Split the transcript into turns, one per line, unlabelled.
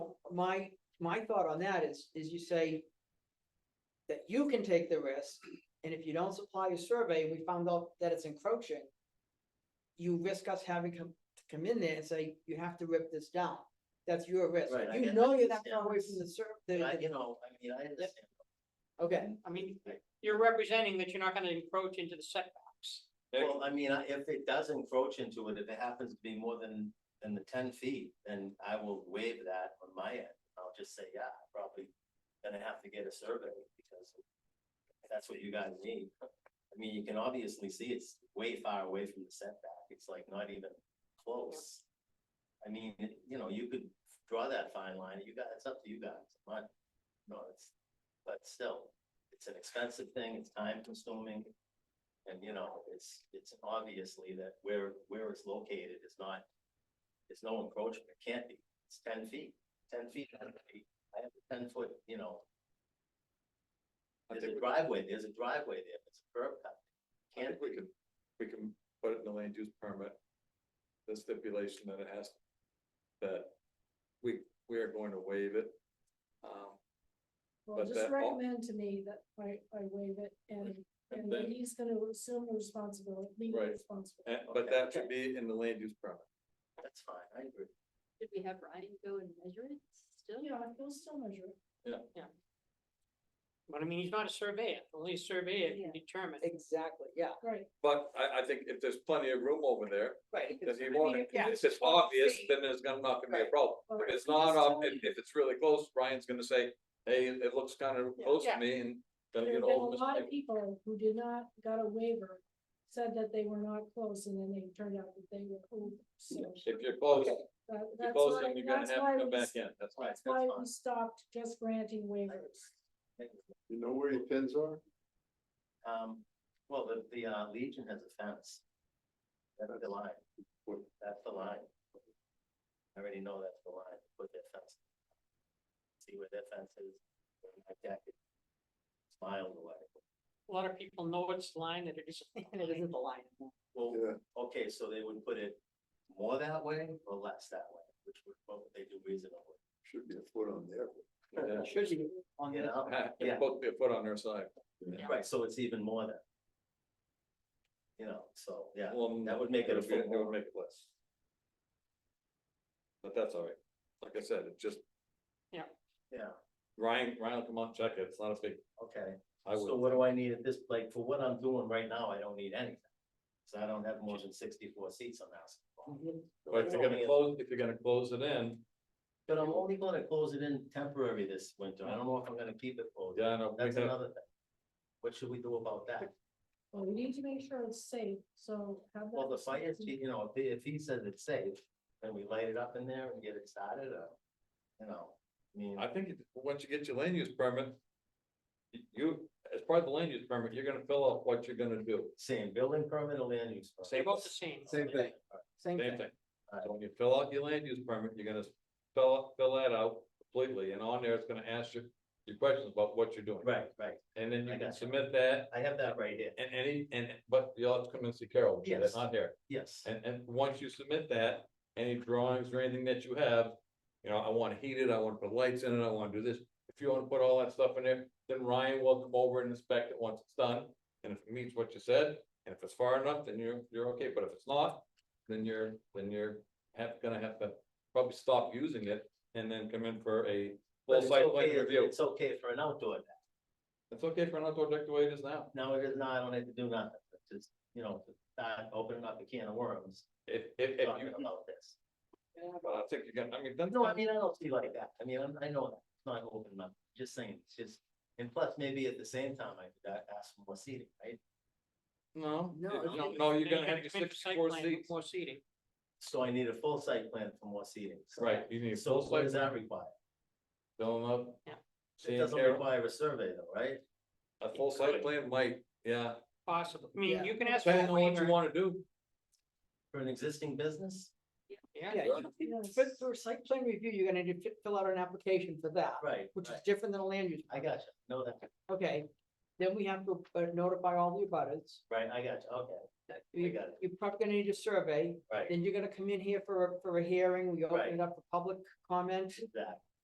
my, my thought on that is, is you say that you can take the risk, and if you don't supply a survey, and we found out that it's encroaching, you risk us having come, to come in there and say, you have to rip this down. That's your risk.
Right, I
You
get-
know
I
you're that
understand.
far away from the sur, the-
I,
the,
you know, I mean, I understand.
okay,
I mean, you're representing that you're not gonna encroach into the setbacks.
Well, I mean, I- if it does encroach into it, if it happens to be more than, than the ten feet, then I will waive that on my end. I'll just say, yeah, I'm probably gonna have to get a survey because that's what you guys need. I mean, you can obviously see it's way far away from the setback. It's like not even close. I mean, it- you know, you could draw that fine line. You got, it's up to you guys. I'm Not, no, it's, but still, it's an expensive thing. It's time consuming. And you know, it's, it's obviously that where, where it's located is not, it's no encroachment, it can't be, it's ten feet, ten feet. I don't know, I have a ten foot, you know.
I
There's
think
a
we-
driveway, there's a driveway there, it's a curb cut.
I
Can't
think we can, we can put it in the land use permit. The stipulation that it has, that we, we are going to waive it. Um,
Well,
But
just
that all-
recommend to me that I, I waive it and,
And
and that
then-
he's gonna assume the responsibility, legal
Right.
responsibility.
and- but
Okay.
that should be in the land use permit.
that's fine, I agree.
Should we have Ryan go and measure it still?
Yeah, he'll still measure it.
But I mean, he's not a surveyor, only a surveyor can determine.
exactly, yeah.
Right,
But I, I think if there's plenty of room over there,
Right.
then he won't, if
Yeah.
it's obvious, then there's gonna not gonna be a problem. If it's not, ob- if, if it's really close, Brian's gonna say, hey, it looks kind of close to me and then
there
get
have been a
all this.
lot of people who did not, got a waiver, said that they were not close, and then they turned out that they were over, so.
If you're close,
Okay.
if
that-
you're
that's
close,
why-
then you're gonna
that's
have
why
to come
we
back
s-
in, that's why.
That's
That's
why we
fine.
stopped just granting waivers.
You know where your pins are?
Um, well, the, the uh, Legion has a fence. That's the line, that's the line. I already know that's the line, put that fence. See where that fence is, where my deck is. Miles away.
A lot of people know it's line that it isn't.
And it isn't the line.
Well,
Yeah.
okay, so they would put it more that way or less that way, which would, what would they do reasonably?
Should be a foot on there.
Yeah.
Should be on
You
the,
know,
It's
Yeah.
supposed to be a foot on their side.
right, so it's even more than. You know, so, yeah,
Well,
that would make it a
it'll be-
foot
It would
more.
make it less. But that's all right. Like I said, it just,
yeah,
Ryan, Ryan will come out and check it. It's not a big,
okay.
I
So
would,
what do I need at this, like, for what I'm doing right now, I don't need anything. So I don't have more than sixty-four seats on
Mhm.
that.
but if you're gonna close, if you're gonna close it in,
But I'm only gonna close it in temporary this winter, I don't know if I'm gonna keep it closed,
yeah, I know. we
that's
have-
another thing. What should we do about that?
Well, we need to make sure it's safe, so have that.
Well, the fire chief, you know, if he, if he says it's safe, then we light it up in there and get it started, or, you know, I mean,
I think it- once you get your land use permit, y- you, as part of the land use permit, you're gonna fill out what you're gonna do.
same building permit or land use. permit?
They're both the same.
Same thing.
same
Same
thing.
thing. So when you fill out your land use permit, you're gonna fill, out- fill that out completely and on there, it's gonna ask you your questions about what you're doing.
Right, right,
And then
I
you can
gotcha.
submit that
I have that right here,
And any, and, but you'll have to come and see Carol,
Yes.
that's not here,
yes,
and, and once you submit that, any drawings or anything that you have. You know, I wanna heat it, I wanna put lights in it, I wanna do this, if you wanna put all that stuff in there, then Ryan will come over and inspect it once it's done. And if it meets what you said, and if it's far enough, then you're, you're okay, but if it's not, then you're, then you're have, gonna have to probably stop using it. And then come in for a
But
full
it's
site plan
okay-
review,
It's okay for an outdoor, deck.
it's okay for an outdoor deck the way it is now.
now it is not, I don't have to do nothing, It's just, you know, to start opening up a can of worms,
If, if, if
talking
you,
about this.
but I think you're gonna, I mean, that's.
No, I mean, I don't see like that, I mean, I'm- I know that, it's not opening up, just saying, it's just, and plus, maybe at the same time, I could a- ask for more seating, right?
No,
No,
you-
it's-
no, no, you're
Then
gonna have your
come in for site
sixty-four
plan,
seats.
More seating.
So I need a full site plan for more seating. So-
Right, you need
So
full
what
site,
does that require?
filling up.
Yeah.
It
seeing
doesn't
Carol.
require a survey though, right?
A full site plan might, yeah,
Possible. I mean, you can ask. for a
depending on what you
waiver.
wanna do.
For an existing business?
Yeah,
Yeah, you-
Yes.
for, for site plan review, you're gonna need to fill out an application for that,
Right,
which is
right.
different than a land use.
I got you. No, that,
Okay, then we have to uh, notify all the abutters.
right, I got you. Okay,
That
I
You,
got it.
you're probably gonna need a survey,
Right,
then you're gonna come in here for, a- for a hearing, we open
Right.
it up for public comment.
exactly.